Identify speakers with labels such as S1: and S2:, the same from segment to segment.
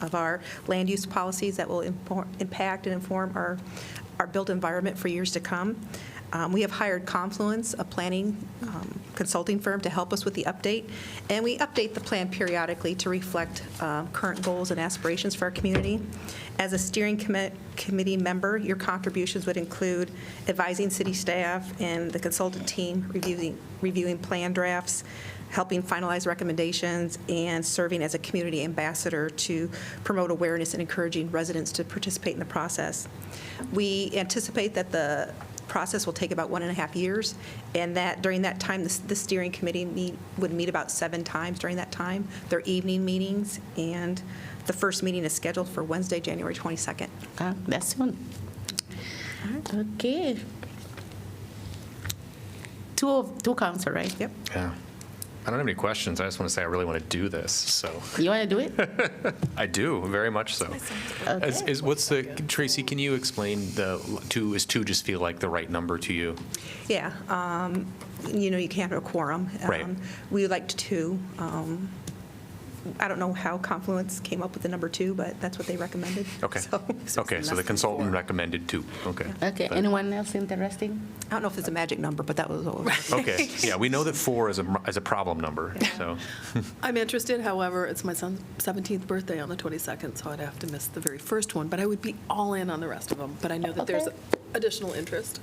S1: of our land use policies that will impor- impact and inform our, our built environment for years to come. Um, We have hired Confluence, a planning um, consulting firm, to help us with the update, and we update the plan periodically to reflect um, current goals and aspirations for our community. As a steering commi- committee member, your contributions would include advising city staff and the consultant team, reviewing, reviewing plan drafts, helping finalize recommendations, and serving as a community ambassador to promote awareness and encouraging residents to participate in the process. We anticipate that the process will take about one and a half years, and that during that time, the the steering committee meet- would meet about seven times during that time, their evening meetings, and the first meeting is scheduled for Wednesday, January 22nd.
S2: Ah, that's soon. Okay. Two, of- two council, right?
S1: Yep.
S3: Yeah. I don't have any questions. I just want to say I really want to do this. So
S2: You want to do it?
S3: I do, very much so.
S4: Is,
S2: Okay.
S4: is, what's the, Tracy, can you explain the, two, is two just feel like the right number to you?
S1: Yeah, um, you know, you can't have a quorum.
S4: Right.
S1: Um, We would like two. um, I don't know how Confluence came up with the number two, but that's what they recommended.
S4: Okay.
S1: So-
S4: Okay, so the consultant recommended two, okay.
S2: Okay,
S4: But-
S2: anyone else interesting?
S1: I don't know if it's a magic number, but that was what was.
S4: Okay, yeah, we know that four is a, is a problem number,
S1: Yeah.
S4: so,
S5: I'm interested, however, it's my son's 17th birthday on the 22nd, so I'd have to miss the very first one, but I would be all in on the rest of them, but I know that there's
S2: Okay.
S5: additional interest.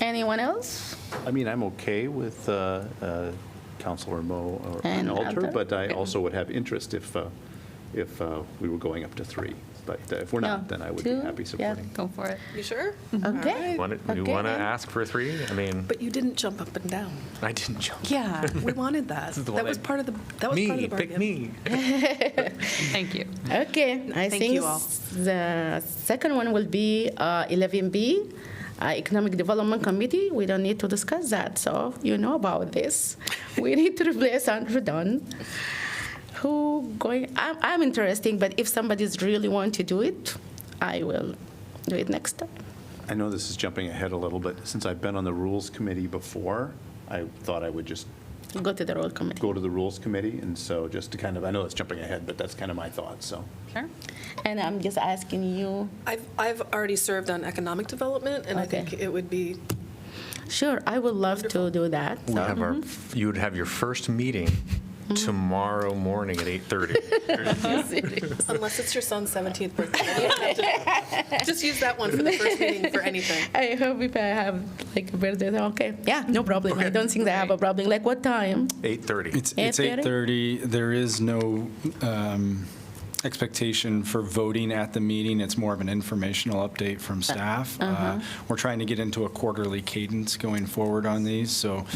S2: Anyone else?
S6: I mean, I'm okay with uh, uh, Counselor Mo or an
S2: And
S6: alter,
S2: other?
S6: but I also would have interest if, uh, if uh, we were going up to three. But uh, if we're not, then I would be
S2: Two?
S6: happy
S2: Yeah,
S6: supporting.
S2: Go for it.
S5: You sure?
S2: Okay.
S5: All right.
S4: want to, you
S2: Okay,
S4: want to
S2: then.
S4: ask for three? I mean,
S5: Mm-hmm. But you didn't jump up and down.
S4: I didn't jump.
S5: Yeah, we wanted that.
S4: is the
S5: That
S4: one
S5: was
S4: I-
S5: part of the, that was part of the
S4: Me,
S5: bargain.
S4: pick me.
S7: Thank you.
S2: Okay, I
S5: Thank
S2: think
S5: you all.
S2: s- the second one will be uh, 11B, uh, Economic Development Committee. We don't need to discuss that, so you know about this. We need to replace Andrew Dunn, who going, I'm, I'm interesting, but if somebody's really want to do it, I will do it next time.
S6: I know this is jumping ahead a little bit. Since I've been on the Rules Committee before, I thought I would just
S2: Go to the roll committee.
S6: go to the Rules Committee. And so just to kind of, I know it's jumping ahead, but that's kind of my thought, so.
S7: Sure.
S2: And I'm just asking you,
S5: I've, I've already served on economic development, and I
S2: Okay.
S5: think it would be,
S2: sure, I would love to do that.
S4: We
S2: so-
S4: have our, you would have your first meeting tomorrow morning at 8:30.
S5: unless it's your son's 17th birthday. You don't have to- Just use that one for the first meeting for anything.
S2: I hope if I have like a birthday, then okay, yeah, no problem. I don't think I have a problem. Like what time?
S4: 8:30.
S8: It's, it's 8:30. There is no um, expectation for voting at the meeting. It's more of an informational update from staff. Uh, We're trying to get into a quarterly cadence going forward on these, so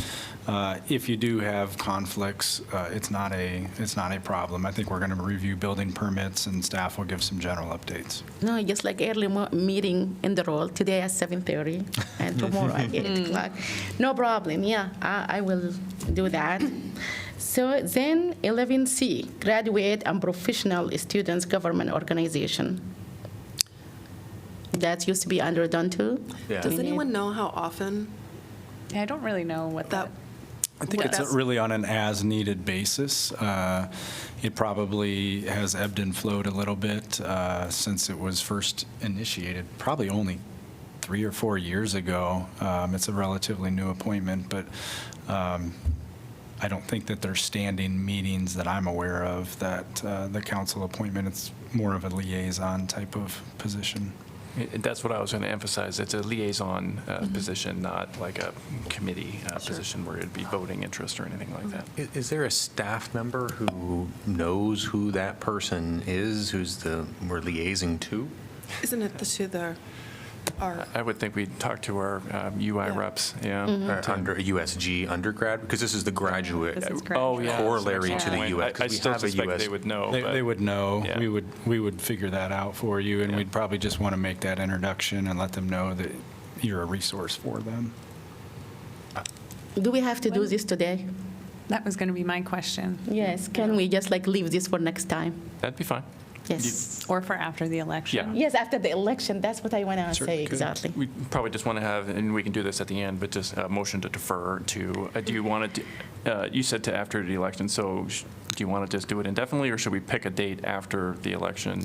S8: uh, if you do have conflicts, uh, it's not a, it's not a problem. I think we're going to review building permits, and staff will give some general updates.
S2: No, just like early mo- meeting in the role. Today at 7:30 and tomorrow at 8 o'clock. No problem, yeah, I, I will do that. So then 11C, graduate and professional students government organization. That used to be under done too?
S4: Yeah.
S5: Does
S2: We need-
S5: anyone know how often
S7: I don't really know what
S5: that
S8: I
S7: that,
S8: think it's
S5: Yes.
S8: really on an as-needed basis. Uh, It probably has ebbed and flowed a little bit uh, since it was first initiated, probably only three or four years ago. Um, It's a relatively new appointment, but um, I don't think that there's standing meetings that I'm aware of that uh, the council appointment, it's more of a liaison type of position.
S9: It- it- That's what I was going to emphasize. It's a liaison uh, position, not like a committee uh, position where it'd be voting interest or anything like that.
S4: I- Is there a staff member who knows who that person is, who's the, we're liaising to? um,
S5: Isn't it the two there are?
S9: I would think we'd talk to our um, UI
S5: Yeah.
S9: reps, yeah.
S4: Or uh, Under a USG undergrad? Because this is the graduate.
S7: Mm-hmm. This is
S9: Oh, yeah. that's an
S4: Corollary to
S9: excellent
S4: the
S9: point.
S4: US,
S9: I- I
S4: because we
S9: still
S4: have a
S9: suspect
S4: US
S9: they would know.
S8: They,
S9: but-
S8: they would know.
S9: Yeah.
S8: We would, we would figure that out for you, and we'd probably just want to make that introduction and let them know that you're a resource for them.
S2: Do we have to do this today?
S7: that was going to be my question,
S2: Yes, can we just like leave this for next time?
S9: That'd be fine.
S2: Yes.
S7: or for after the election.
S2: Yes, after the election, that's what I want to
S9: Sure,
S2: say,
S9: good.
S2: exactly.
S9: We probably just want to have, and we can do this at the end, but just a motion to defer to, uh, do you want it, to- uh, you said to after the election, so sh- do you want to just do it indefinitely, or should we pick a date after the election